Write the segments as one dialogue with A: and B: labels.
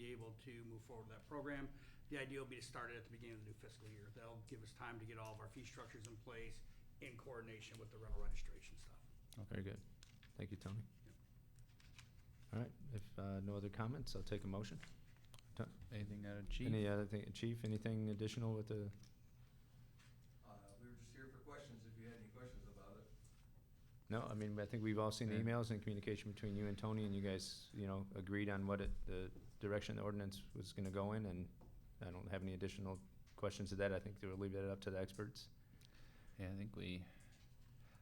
A: able to move forward with that program. The idea will be to start it at the beginning of the new fiscal year. That'll give us time to get all of our fee structures in place in coordination with the rental registration stuff.
B: Very good. Thank you, Tony.
A: Yep.
B: All right, if uh, no other comments, I'll take a motion.
C: Anything out of chief?
B: Any other thing, Chief, anything additional with the,
D: Uh, we were just here for questions, if you had any questions about it.
B: no, I mean, I think we've all seen the
C: Yeah.
B: emails and communication between you and Tony, and you guys, you know, agreed on what it, the direction the ordinance was gonna go in, and I don't have any additional questions to that. I think we'll leave that up to the experts.
C: Yeah, I think we,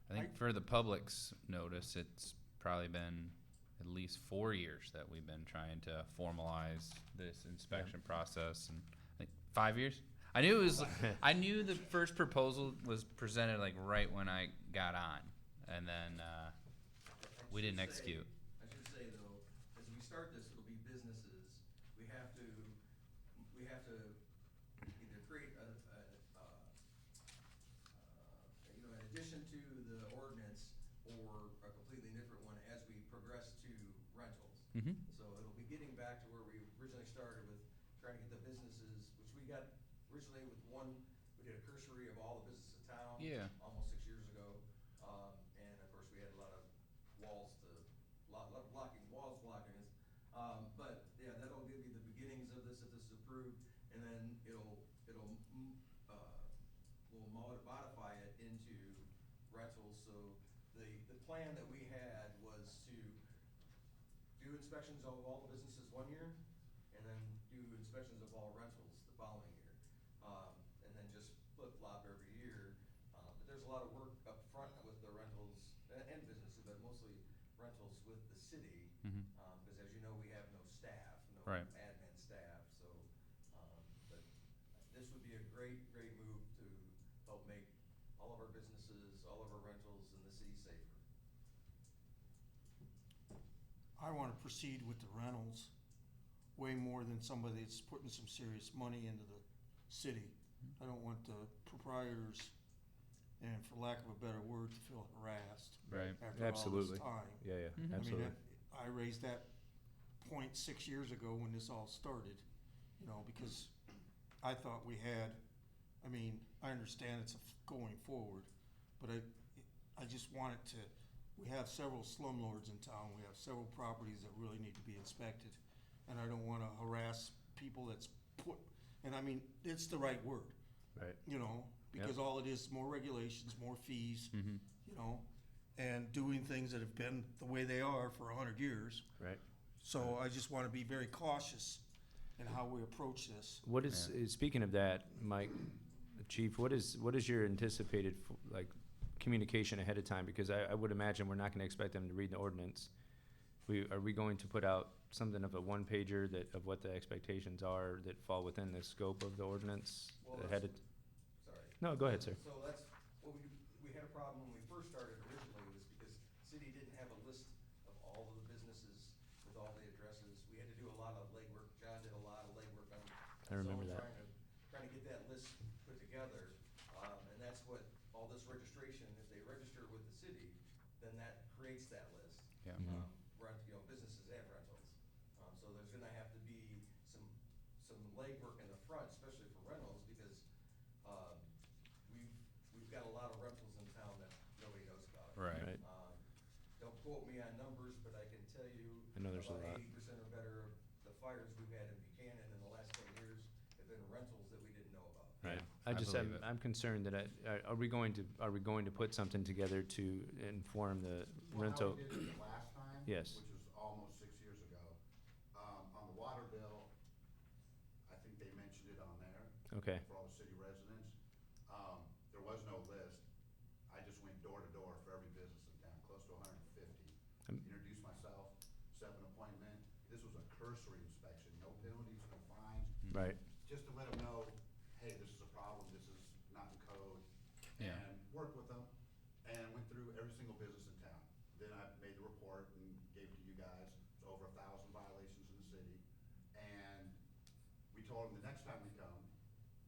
C: I
A: I-
C: think for the public's notice, it's probably been at least four years that we've been trying to formalize this inspection process and I think five years? I knew it was, I knew the first proposal was presented like right when I got on and then, uh,
D: I
C: we
D: should
C: didn't
D: say-
C: execute.
D: I should say though, as we start this, it'll be businesses, we have to, we have to either create a, a, uh, uh, you know, in addition to the ordinance or a completely different one as we progress to rentals.
C: Mm-hmm.
D: So it'll be getting back to where we originally started with trying to get the businesses, which we got originally with one, we did a cursory of all the businesses in town.
C: Yeah.
D: Almost six years ago, um, and of course, we had a lot of walls to, lot, lot of blocking, walls blocking us. Um, but, yeah, that'll give you the beginnings of this if this is approved, and then it'll, it'll, mm, uh, we'll mod- modify it into rentals, so the, the plan that we had was to do inspections of all the businesses one year, and then do inspections of all rentals the following year. Um, and then just flip flop every year, uh, but there's a lot of work up front with the rentals and, and businesses, but mostly rentals with the city.
C: Mhm.
D: Um, cause as you know, we have no staff, no
C: Right.
D: admin staff, so, um, but this would be a great, great move to help make all of our businesses, all of our rentals in the city safer.
E: I wanna proceed with the rentals way more than somebody that's putting some serious money into the city. I don't want the proprietors, and for lack of a better word, to feel harassed
C: Right.
E: after all
B: Absolutely.
E: this time.
B: Yeah,
C: Mhm.
B: yeah,
E: Mm-hmm. I mean,
B: Mm-hmm. absolutely.
E: that- I raised that point six years ago when this all started, you know, because I thought we had, I mean, I understand it's a f- going forward, but I, I just wanted to, we have several slumlords in town, we have several properties that really need to be inspected, and I don't wanna harass people that's put, and I mean, it's the right word.
B: Right.
E: You know,
B: Yep.
E: because all it is, more regulations, more fees,
C: Mm-hmm.
E: you know, and doing things that have been the way they are for a hundred years.
B: Right.
E: So I just wanna be very cautious in how we approach this.
B: What is, uh, speaking of that, Mike, Chief, what is, what is your anticipated, f- like, communication ahead of time? Because I, I would imagine we're not gonna expect them to read the ordinance. We, are we going to put out something of a one pager that, of what the expectations are that fall within the scope of the ordinance
D: Well,
B: ahead of?
D: Sorry.
B: No, go ahead, sir.
D: So that's, what we, we had a problem when we first started originally was because city didn't have a list of all of the businesses with all the addresses. We had to do a lot of legwork. John did a lot of legwork on.
B: I remember that.
D: so Trying to, trying to get that list put together, um, and that's what, all this registration, if they register with the city, then that creates that list
C: Yeah.
B: Mhm.
D: um, rent, you know, businesses and rentals. Um, so there's gonna have to be some, some legwork in the front, especially for rentals, because, um, we've, we've got a lot of rentals in town that nobody knows about.
C: Right.
B: Right.
D: Um, don't quote me on numbers, but I can tell you.
B: I know there's a lot.
D: About eighty percent or better of the fires we've had in Buchanan in the last ten years have been rentals that we didn't know about.
B: Right.
C: Yeah, I
B: I just,
C: believe
B: I'm,
C: it.
B: I'm concerned that I, are- are we going to, are we going to put something together to inform the
F: Well,
B: rental?
F: How we did it the last time.
B: Yes.
F: Which was almost six years ago. Um, on the water bill, I think they mentioned it on there
B: Okay,
F: for all the city residents. Um, there was no list. I just went door to door for every business in town, close to hundred and fifty.
B: Um,
F: Introduced myself, set an appointment. This was a cursory inspection, no penalties, no fines,
B: right,
F: just to let them know, hey, this is a problem, this is not in code.
C: Yeah.
F: And work with them, and went through every single business in town. Then I made the report and gave it to you guys, it's over a thousand violations in the city. And we told them the next time we come,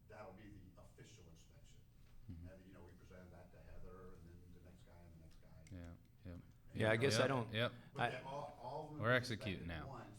F: that'll be the official inspection.
B: Mm-hmm.
F: And, you know, we presented that to Heather, and then the next guy, and the next guy.
C: Yeah, yeah.
B: Yeah, I guess I
C: Yep,
B: don't-
C: Yep.
F: But
B: I-
F: they all, all of them.
C: We're
F: were
C: executing
F: inspected
C: now.
F: One,